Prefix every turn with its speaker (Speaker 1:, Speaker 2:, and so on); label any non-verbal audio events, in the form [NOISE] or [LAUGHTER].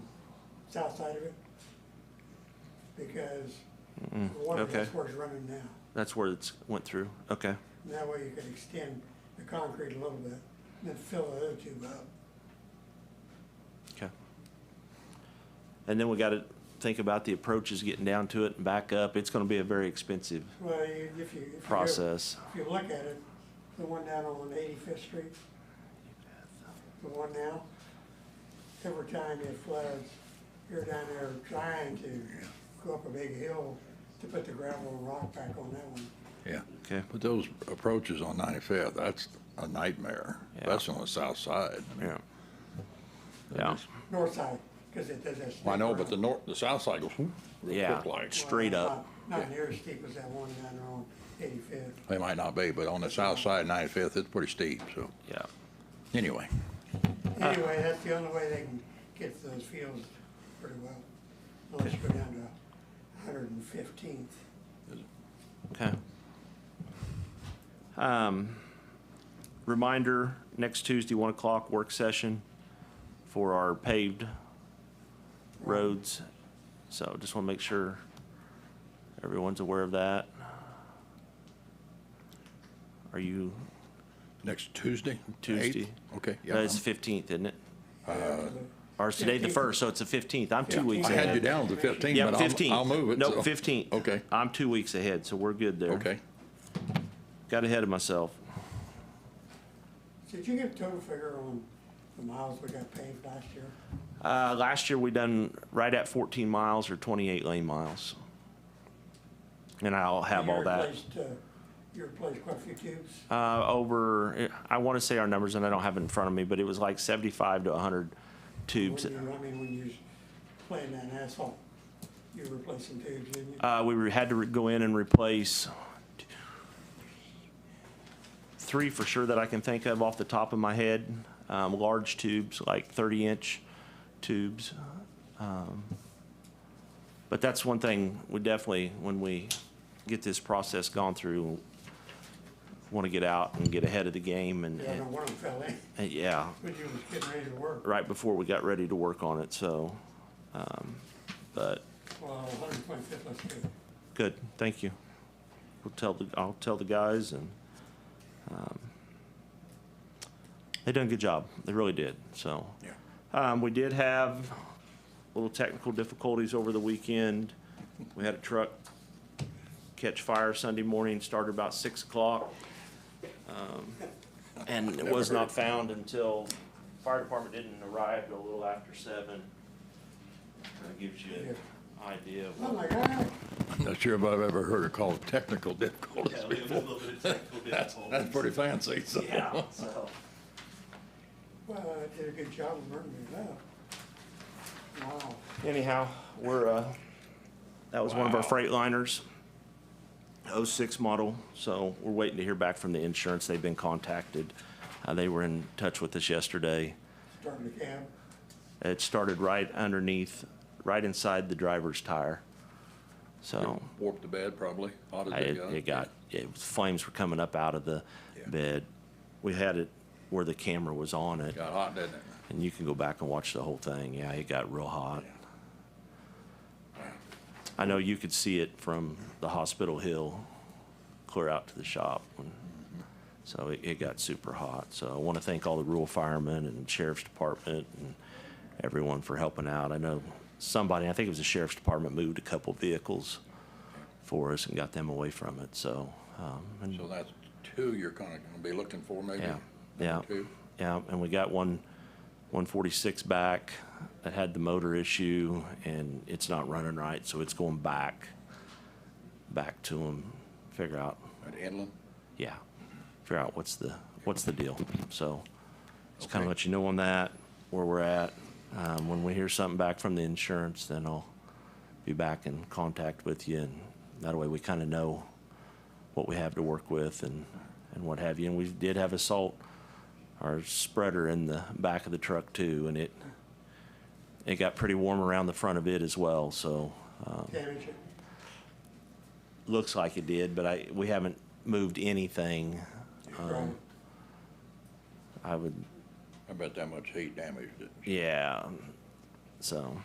Speaker 1: south side of it. Because the water
Speaker 2: Hmm, Mm, okay.
Speaker 1: that's where it's running now.
Speaker 2: That's where it's went through. Okay.
Speaker 1: And that way you could extend the concrete a little bit, and then fill the other tube up.
Speaker 2: Okay. And then we got to think about the approaches getting down to it and back up. It's going to be a very expensive
Speaker 1: Well, you- if you, if you. do-
Speaker 2: process.
Speaker 1: If you look at it, the one down on Eighty-Fifth Street, the one now, every time it floods, you're down there trying to go up a big hill to put the gravel and rock back on that one.
Speaker 3: Yeah,
Speaker 2: Okay.
Speaker 3: but those approaches on 95th, that's a nightmare.
Speaker 2: Yeah.
Speaker 3: That's on the south side.
Speaker 2: Yeah. Yeah.
Speaker 1: North side, because it does that.
Speaker 3: I know,
Speaker 1: steep
Speaker 3: but the
Speaker 1: run.
Speaker 3: north, the south side goes whoop, real
Speaker 2: Yeah.
Speaker 3: quick like.
Speaker 2: straight
Speaker 1: Well,
Speaker 2: up.
Speaker 1: Not not near as steep as that one down there on Eighty-Fifth.
Speaker 3: They might not be, but on the south side, 95th, it's pretty steep, so,
Speaker 2: Yeah.
Speaker 3: anyway.
Speaker 1: Anyway, that's the only way they can get to those fields pretty well, unless you go down to Hundred and Fifteenth.
Speaker 2: Okay. Um, reminder, next Tuesday, one o'clock work session for our paved roads. So just want to make sure everyone's aware of that. Are you,
Speaker 3: Next Tuesday? the
Speaker 2: Tuesday.
Speaker 3: 8th? Okay, yeah.
Speaker 2: no, it's
Speaker 3: I'm-
Speaker 2: fifteenth, isn't it? Or it's today the
Speaker 1: 15th.
Speaker 2: first, so it's the fifteenth. I'm two
Speaker 3: yeah.
Speaker 2: weeks
Speaker 3: I had you
Speaker 2: ahead.
Speaker 3: down to 15,
Speaker 2: Yeah,
Speaker 3: but
Speaker 2: fifteenth.
Speaker 3: I'll, I'll move it.
Speaker 2: Nope,
Speaker 3: so-
Speaker 2: fifteenth.
Speaker 3: Okay,
Speaker 2: I'm two weeks ahead, so we're good there.
Speaker 3: okay.
Speaker 2: Got ahead of myself.
Speaker 1: Did you get a total figure on the miles we got paved last year?
Speaker 2: Uh, last year, we done right at 14 miles or 28 lane miles. And I'll have all
Speaker 1: You
Speaker 2: that.
Speaker 1: replaced, uh, you replaced quite a few tubes,
Speaker 2: Uh, over, I want to say our numbers, and I don't have it in front of me, but it was like 75 to 100
Speaker 1: when
Speaker 2: tubes.
Speaker 1: you, I mean, when you was playing that asphalt, you were replacing tubes, didn't you?
Speaker 2: Uh, we were- had to re- go in and replace three for sure that I can think of off the top of my head. Um, large tubes, like 30 inch tubes. Um, but that's one thing we definitely, when we get this process gone through, want to get out and get ahead of the game. And,
Speaker 1: Yeah, I know
Speaker 2: and,
Speaker 1: one of them fell in, [LAUGHS]
Speaker 2: and yeah,
Speaker 1: when you was getting ready to work,
Speaker 2: right before we got ready to work on it. So, um, but
Speaker 1: well, Hundred and Twenty-Fifth, let's do it.
Speaker 2: Good, thank you. We'll tell the, I'll tell the guys and, um, they done a good job. They really did, so.
Speaker 3: Yeah.
Speaker 2: Um, we did have little technical difficulties over the weekend. We had a truck catch fire Sunday morning, started about six o'clock. Um, And it was not found until, fire department didn't arrive till a little after seven. That gives you an idea of
Speaker 1: Oh,
Speaker 2: what.
Speaker 1: my God.
Speaker 3: I'm not sure if I've ever heard it called technical difficulties
Speaker 2: Yeah,
Speaker 3: [LAUGHS]
Speaker 2: we have a
Speaker 3: before.
Speaker 2: little bit of technical
Speaker 3: That's, that's
Speaker 2: difficulties.
Speaker 3: pretty fancy, so.
Speaker 2: Yeah, so,
Speaker 1: Well, I did a good job of burning it up. Wow.
Speaker 2: anyhow, we're, uh, that was one of our Freightliners. oh-six model, so we're waiting to hear back from the insurance. They've been contacted. Uh, they were in touch with us yesterday.
Speaker 1: Starting the cab.
Speaker 2: It started right underneath, right inside the driver's tire. So,
Speaker 3: Warped the bed probably, hot
Speaker 2: it,
Speaker 3: as
Speaker 2: it got, it, flames were coming up out of the
Speaker 3: Yeah.
Speaker 2: bed. We had it where the camera was on it.
Speaker 3: Got hot, didn't it?
Speaker 2: And you can go back and watch the whole thing. Yeah, it got real hot. I know you could see it from the hospital hill, clear out to the shop. when- So it, it got super hot. So I want to thank all the rural firemen and sheriff's department and everyone for helping out. I know somebody, I think it was the sheriff's department, moved a couple vehicles for us and got them away from it. So, um, and
Speaker 3: So that's two you're kind of going to be looking for, maybe?
Speaker 2: yeah, yeah,
Speaker 3: Number two?
Speaker 2: yeah, and we got one, one forty-six back that had the motor issue and it's not running right, so it's going back, back to them, figure out,
Speaker 3: At Inland?
Speaker 2: yeah, figure out what's the, what's the deal, so. Just kinda
Speaker 3: Okay.
Speaker 2: let you know on that, where we're at, um, when we hear something back from the insurance, then I'll be back in contact with you and that way we kinda know what we have to work with and, and what have you, and we did have a salt our spreader in the back of the truck too, and it, it got pretty warm around the front of it as well, so, um,
Speaker 1: Damage it.
Speaker 2: looks like it did, but I, we haven't moved anything.
Speaker 1: Right.
Speaker 2: I would,
Speaker 3: I bet that much heat damaged it.
Speaker 2: yeah, so.